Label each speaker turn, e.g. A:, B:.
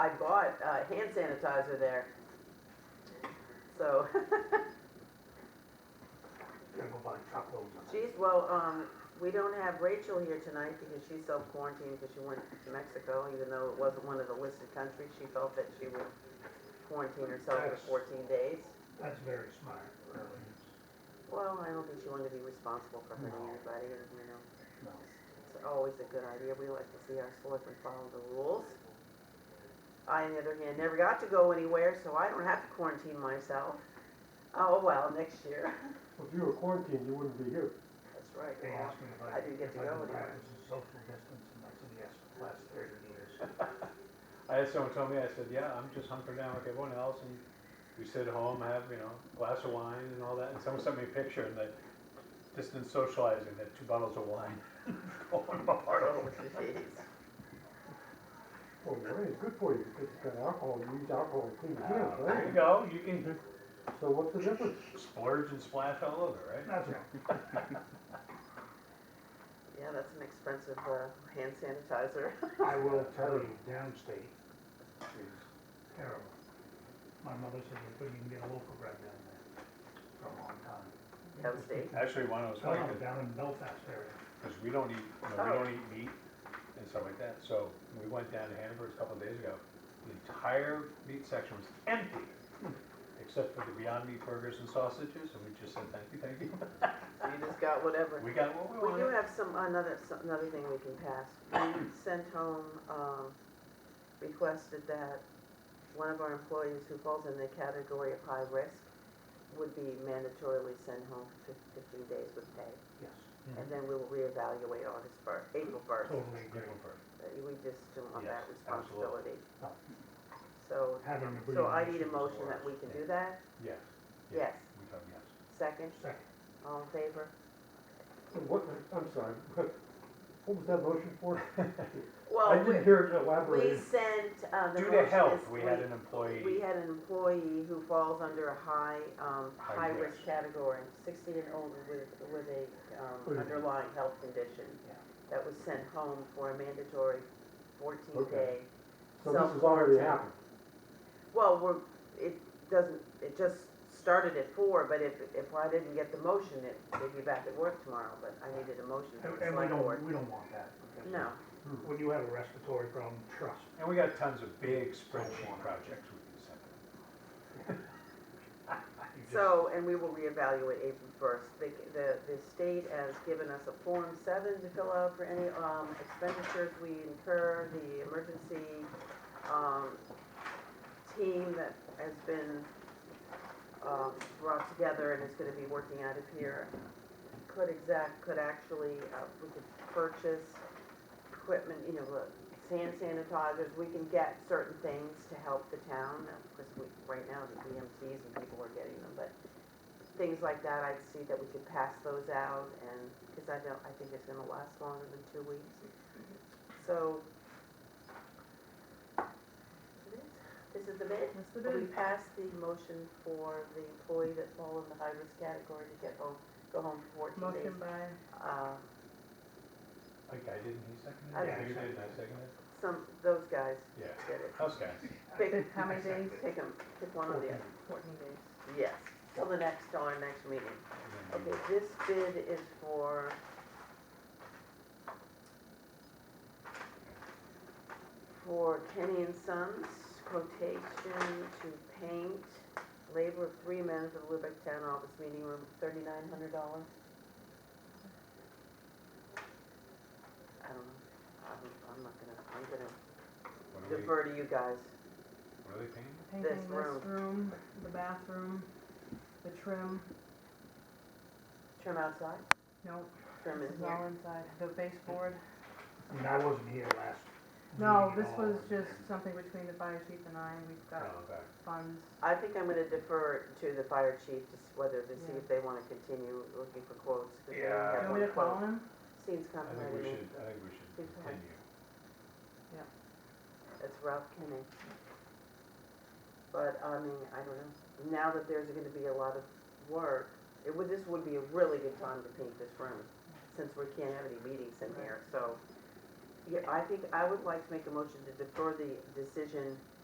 A: I bought, uh, hand sanitizer there. So,
B: Gotta go buy truckloads of it.
A: geez, well, um, we don't have Rachel here tonight because she's self-quarantined because she went to Mexico, even though it wasn't one of the listed countries, she felt that she would quarantine herself for
B: Yes.
A: fourteen days.
B: That's very smart, really.
A: Well, I don't think she wanted to be responsible for hurting
B: No.
A: anybody, you know.
B: No.
A: It's always a good idea. We like to see our selectmen follow the rules. I, on the other hand, never got to go anywhere, so I don't have to quarantine myself. Oh, well, next year.
C: If you were quarantined, you wouldn't be here.
A: That's right.
B: They asked me if
A: I
B: I,
A: didn't get
B: if I
A: to go
B: could
A: anywhere.
B: practice the social distance, and I said yes for the last thirty years.
D: I had someone tell me, I said, yeah, I'm just hunkered down like everyone else, and we sit at home, have, you know, a glass of wine and all that, and someone sent me a picture, and they, distant socializing, they had two bottles of wine, going apart
A: Oh,
D: over.
A: jeez.
C: Well, wine is good for you, because it's got alcohol, you use alcohol to clean your hands,
D: There you
C: right?
D: go, Ah, you can
C: So what's the difference?
D: splurge and splash all over, right?
B: That's all.
A: Yeah, that's an expensive, uh, hand sanitizer.
B: I will tell you, downstate is terrible. My mother said you couldn't even get a local bread down there for a long time.
A: Downstate?
D: Actually, one was funny,
B: Well, down in Belfast area.
D: because we don't eat, you know, we don't eat meat and stuff like that, so we went down to Hannaford a couple of days ago, the entire meat section was empty, except for the Beyond Meat burgers and sausages, and we just said, thank you, thank you.
A: So you just got whatever.
D: We got what we
A: We do
D: wanted.
A: have some, another, some- another thing we can pass. We sent home, um, requested that one of our employees who falls in the category of high risk would be mandatorily sent home for fif- fifteen days with pay.
D: Mm-hmm.
B: Yes,
A: And then we will reevaluate August first, April first.
B: totally agree.
D: Grateful for it.
A: We just don't want that
D: Yes,
A: responsibility.
B: No.
A: So,
B: Having a breathing
A: so I need a
B: issue is
A: motion that
B: worse.
A: we can do that.
D: Yes.
A: Yes,
D: We told yes.
A: second,
B: Second,
A: all in favor?
C: And What, I'm sorry, what what was that motion for? I
A: Well, Oh, we,
C: didn't hear it
A: we
C: elaborated.
A: sent, uh, the
D: Due
A: motion
D: to health,
A: is
D: we had an employee.
A: We had an employee who falls under a high, um,
D: High
A: high-risk
D: risk.
A: category, sixty and older with, with a, um,
B: With a-
A: underlying health condition
B: Yeah.
A: that was sent home for a mandatory fourteen-day.
C: Okay. So this has already happened.
A: Well, we're, it doesn't, it just started at four, but if, if I didn't get the motion, it, they'd be back at work tomorrow, but I needed a motion
B: and
A: from the
B: and we
A: select board.
B: don't, we don't want that. because
A: No,
C: Hmm.
B: When you have a respiratory problem, trust
D: And we got tons of big spreadsheet projects we can send them.
B: You just-
A: so, and we will reevaluate April first. The, the, the state has given us a Form seven to fill out for any, um, expenditures we incur, the emergency, um, team that has been, um, brought together and is gonna be working out of here. Could exact, could actually, uh, we could purchase equipment, you know, uh, hand sanitizers, we can get certain things to help the town, because we, right now, the EMTs and people are getting them, but things like that, I'd see that we could pass those out, and, because I don't, I think it's gonna last longer than two weeks. So. This is the bid?
E: That's the
A: Will we
E: bid.
A: pass the motion for the employee that fall in the high-risk category to get home, go home for fourteen
E: Motion
A: days?
E: by,
A: Uh,
D: Like I didn't, he seconded
A: I
D: it?
B: did.
D: You did, I seconded it?
A: some, those guys
D: Yeah.
A: did it.
D: Us guys.
A: Pick,
E: how many days?
A: pick 'em, pick one or the other.
E: Fourteen days.
A: Yes, till the next, till our next meeting.
D: And then you-
A: Okay, this bid is for. For Kenny and Sons, quotation to paint labor of three men for the Lubec Town Office Meeting Room, thirty-nine hundred dollars. I don't know, I'm, I'm not gonna, I'm gonna
D: What are we,
A: defer to you guys.
D: what are they paying?
E: Painting
A: This
E: this
A: room.
E: room, the bathroom, the trim,
A: Trim outside,
E: no,
A: trim
E: this
A: in
E: is
A: here.
E: all inside, the baseboard.
B: I mean, I wasn't here last. meeting
E: No,
B: at
E: this
B: all.
E: was just something between the fire chief and I, we've
A: Uh,
E: got
D: Oh, okay.
E: funds.
A: I think I'm gonna defer to the fire chief, just whether to see
E: Yeah.
A: if they wanna continue looking for quotes. 'cause they only have
D: Yeah.
E: Do you
A: one
E: want me to
A: quote.
E: call him?
A: Seems
D: I think
A: complicated
D: we
A: to me.
D: should, I think we should
A: Big time.
D: continue.
A: That's Ralph Kenny. But, I mean, I don't know, now that there's gonna be a lot of work, it would, this would be a really good time to paint this room, since we can't have any meetings in here, so yeah, I think I would like to make a motion to defer the decision